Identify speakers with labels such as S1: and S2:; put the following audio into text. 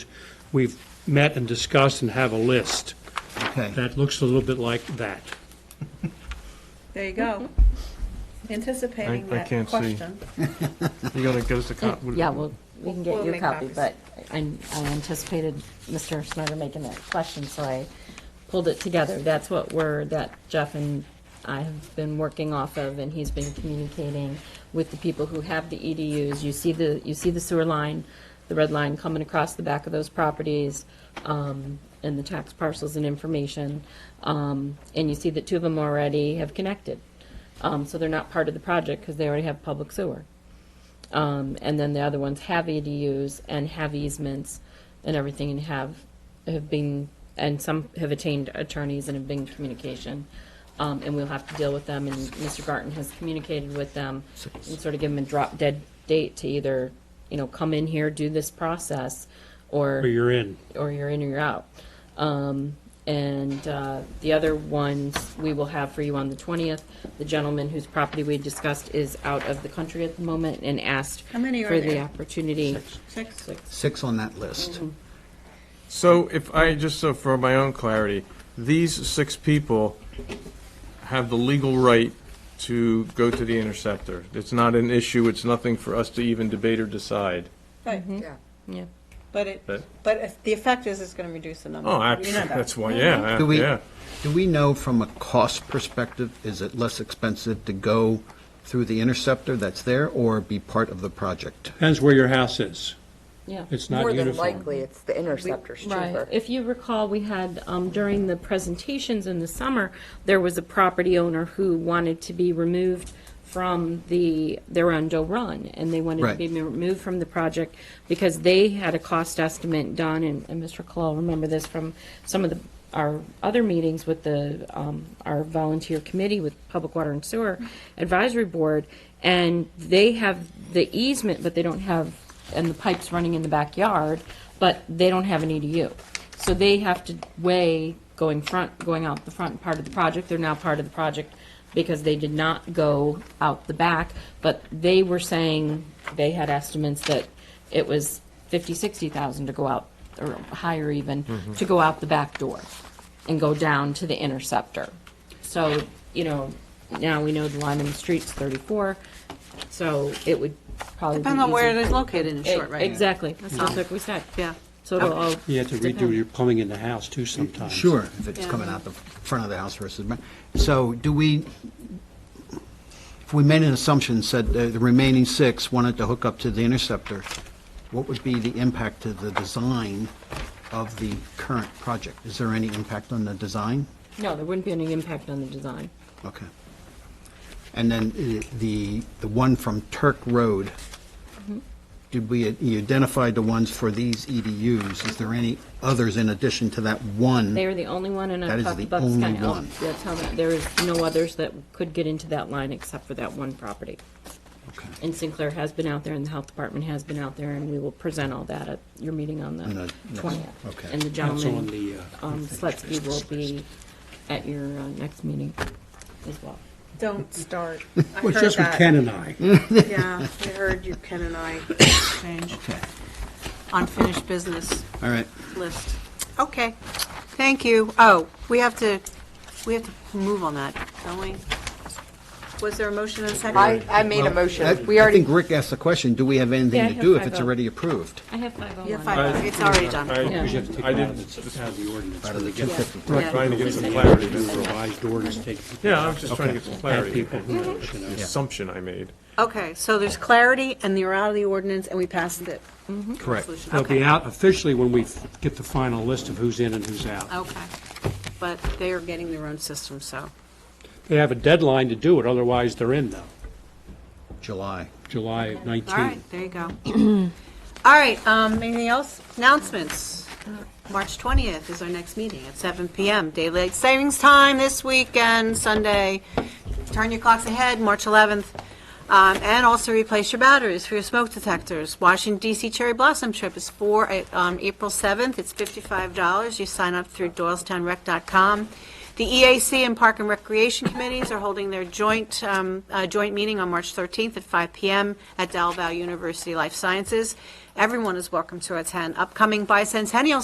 S1: we've met and discussed and have a list.
S2: Okay,
S1: That looks a little bit like that.
S3: There you go. Mm-hmm. Anticipating
S4: I- I
S3: that
S4: can't see.
S3: question.
S4: You gonna get us a cop?
S5: Yeah, well, we can
S3: We'll
S5: get you a
S3: make
S5: copy,
S3: copies.
S5: but I I anticipated Mr. Snyder making that question, so I pulled it together. That's what we're, that Jeff and I have been working off of, and he's been communicating with the people who have the EDUs. You see the, you see the sewer line, the red line coming across the back of those properties, um, and the tax parcels and information. Um, and you see that two of them already have connected. Um, so they're not part of the project because they already have public sewer. Um, and then the other ones have ADUs and have easements and everything and have, have been, and some have attained attorneys and have been in communication. Um, and we'll have to deal with them and Mr. Garten has communicated with them and sort of give them a drop dead date to either, you know, come in here, do this process or
S1: Or you're in.
S5: or you're in or you're out. Um, and uh, the other ones we will have for you on the 20th. The gentleman whose property we discussed is out of the country at the moment and asked
S3: How many are
S5: for the
S3: there?
S5: opportunity.
S3: Six.
S2: six on that list.
S4: So if I, just so for my own clarity, these six people have the legal right to go to the interceptor. It's not an issue, it's nothing for us to even debate or decide.
S3: Right.
S5: Yeah.
S3: But it,
S4: But-
S3: but if the effect is it's going to reduce the number.
S4: Oh, I-
S3: You know that.
S4: that's why, yeah,
S2: Do
S4: I-
S2: we,
S4: yeah.
S2: do we know from a cost perspective, is it less expensive to go through the interceptor that's there or be part of the project?
S1: Depends where your house is.
S5: Yeah.
S1: It's not
S6: More than
S1: uniform.
S6: likely, it's the interceptor's
S5: Right.
S6: cheaper.
S5: If you recall, we had, um, during the presentations in the summer, there was a property owner who wanted to be removed from the, they're on Doe Run, and they wanted to
S2: Right.
S5: be removed from the project because they had a cost estimate done, and, and Mr. Colal, remember this from some of the, our other meetings with the, um, our volunteer committee with Public Water and Sewer Advisory Board, and they have the easement, but they don't have, and the pipes running in the backyard, but they don't have an E EDU. So they have to weigh going front, going out the front part of the project, they're now part of the project because they did not go out the back, but they were saying, they had estimates that it was fifty, sixty thousand to go out, or higher even, to go out the back door and go down to the interceptor. So, you know, now we know the line in the street's thirty-four, so it would probably be
S3: Depends on where it
S5: easy-
S3: is located in
S5: E-
S3: short, right?
S5: Exactly, that's just like we said.
S3: Yeah.
S5: So it'll all.
S1: You have to redo
S5: depend.
S1: your plumbing in the house too sometimes.
S2: Sure, if it's coming out the front of the house versus, back. so do we, if we made an assumption, said uh, the the remaining six wanted to hook up to the interceptor, what would be the impact to the design of the current project? Is there any impact on the design?
S5: No, there wouldn't be any impact on the design.
S2: Okay. And then i- the, the one from Turk Road, did we, you identified the ones for these EDUs. Is there any others in addition to that one?
S5: They are the only one, and
S2: That
S5: I've
S2: is
S5: talked
S2: the
S5: about
S2: only
S5: Sky Elm.
S2: one.
S5: Yeah, tell me, there is no others that could get into that line except for that one property.
S2: Okay.
S5: And Sinclair has been out there, and the health department has been out there, and we will present all that at your meeting on
S2: On the
S5: the
S2: next-
S5: twentieth.
S2: okay.
S5: And the
S1: That's on the,
S5: gentleman,
S1: uh,
S5: um, Sletsky will be at your uh, next meeting as well.
S3: Don't start. I
S1: Well,
S3: heard
S1: just with
S3: that.
S1: Ken and I.
S3: Yeah, I heard you, Ken and I exchange unfinished business
S2: All right.
S3: list. Okay, thank you. Oh, we have to, we have to move on that, don't we? Was there a motion and a second?
S6: I, I made a
S2: I-
S6: motion. We
S2: I
S6: already,
S2: think Rick asked the question, do we have
S5: Yeah, I
S2: anything to
S5: have
S2: do if
S5: five
S2: it's
S5: oh.
S2: already approved?
S5: I have five oh one.
S3: Yeah, five, it's already done.
S4: I-
S1: We just have to take
S4: I
S1: it out
S4: didn't-
S1: of the- out of the ordinance.
S2: Out of the
S1: We get
S2: 250?
S3: Yeah.
S4: Trying to get some
S1: the
S4: clarity.
S1: new revised ordinance, take Mm-hmm. people
S4: Yeah, I was just trying to get some
S1: have
S4: clarity.
S1: people who, know, you know.
S4: Assumption I made.
S3: Okay, so there's clarity and you're out of the ordinance and we passed it.
S2: Correct.
S3: Resolution.
S1: They'll be
S3: Okay.
S1: out officially when we f- get the final list of who's in and who's out.
S3: Okay, but they are getting their own system, so.
S1: They have a deadline to do it, otherwise they're in though,
S2: July.
S1: July
S3: All right,
S1: 19.
S3: there you go. All right, um, anything else? Announcements. March 20th is our next meeting at 7 PM. Daylight savings time this weekend, Sunday. Turn your clocks ahead, March 11th. Um, and also replace your batteries for your smoke detectors. Washington DC Cherry Blossom Trip is for, uh, um, April 7th. It's $55. You sign up through doylestownrec.com. The EAC and Park and Recreation Committees are holding their joint, um, uh, joint meeting on March 13th at 5 PM at Dalval University Life Sciences. Everyone is welcome to attend. Upcoming bicentennial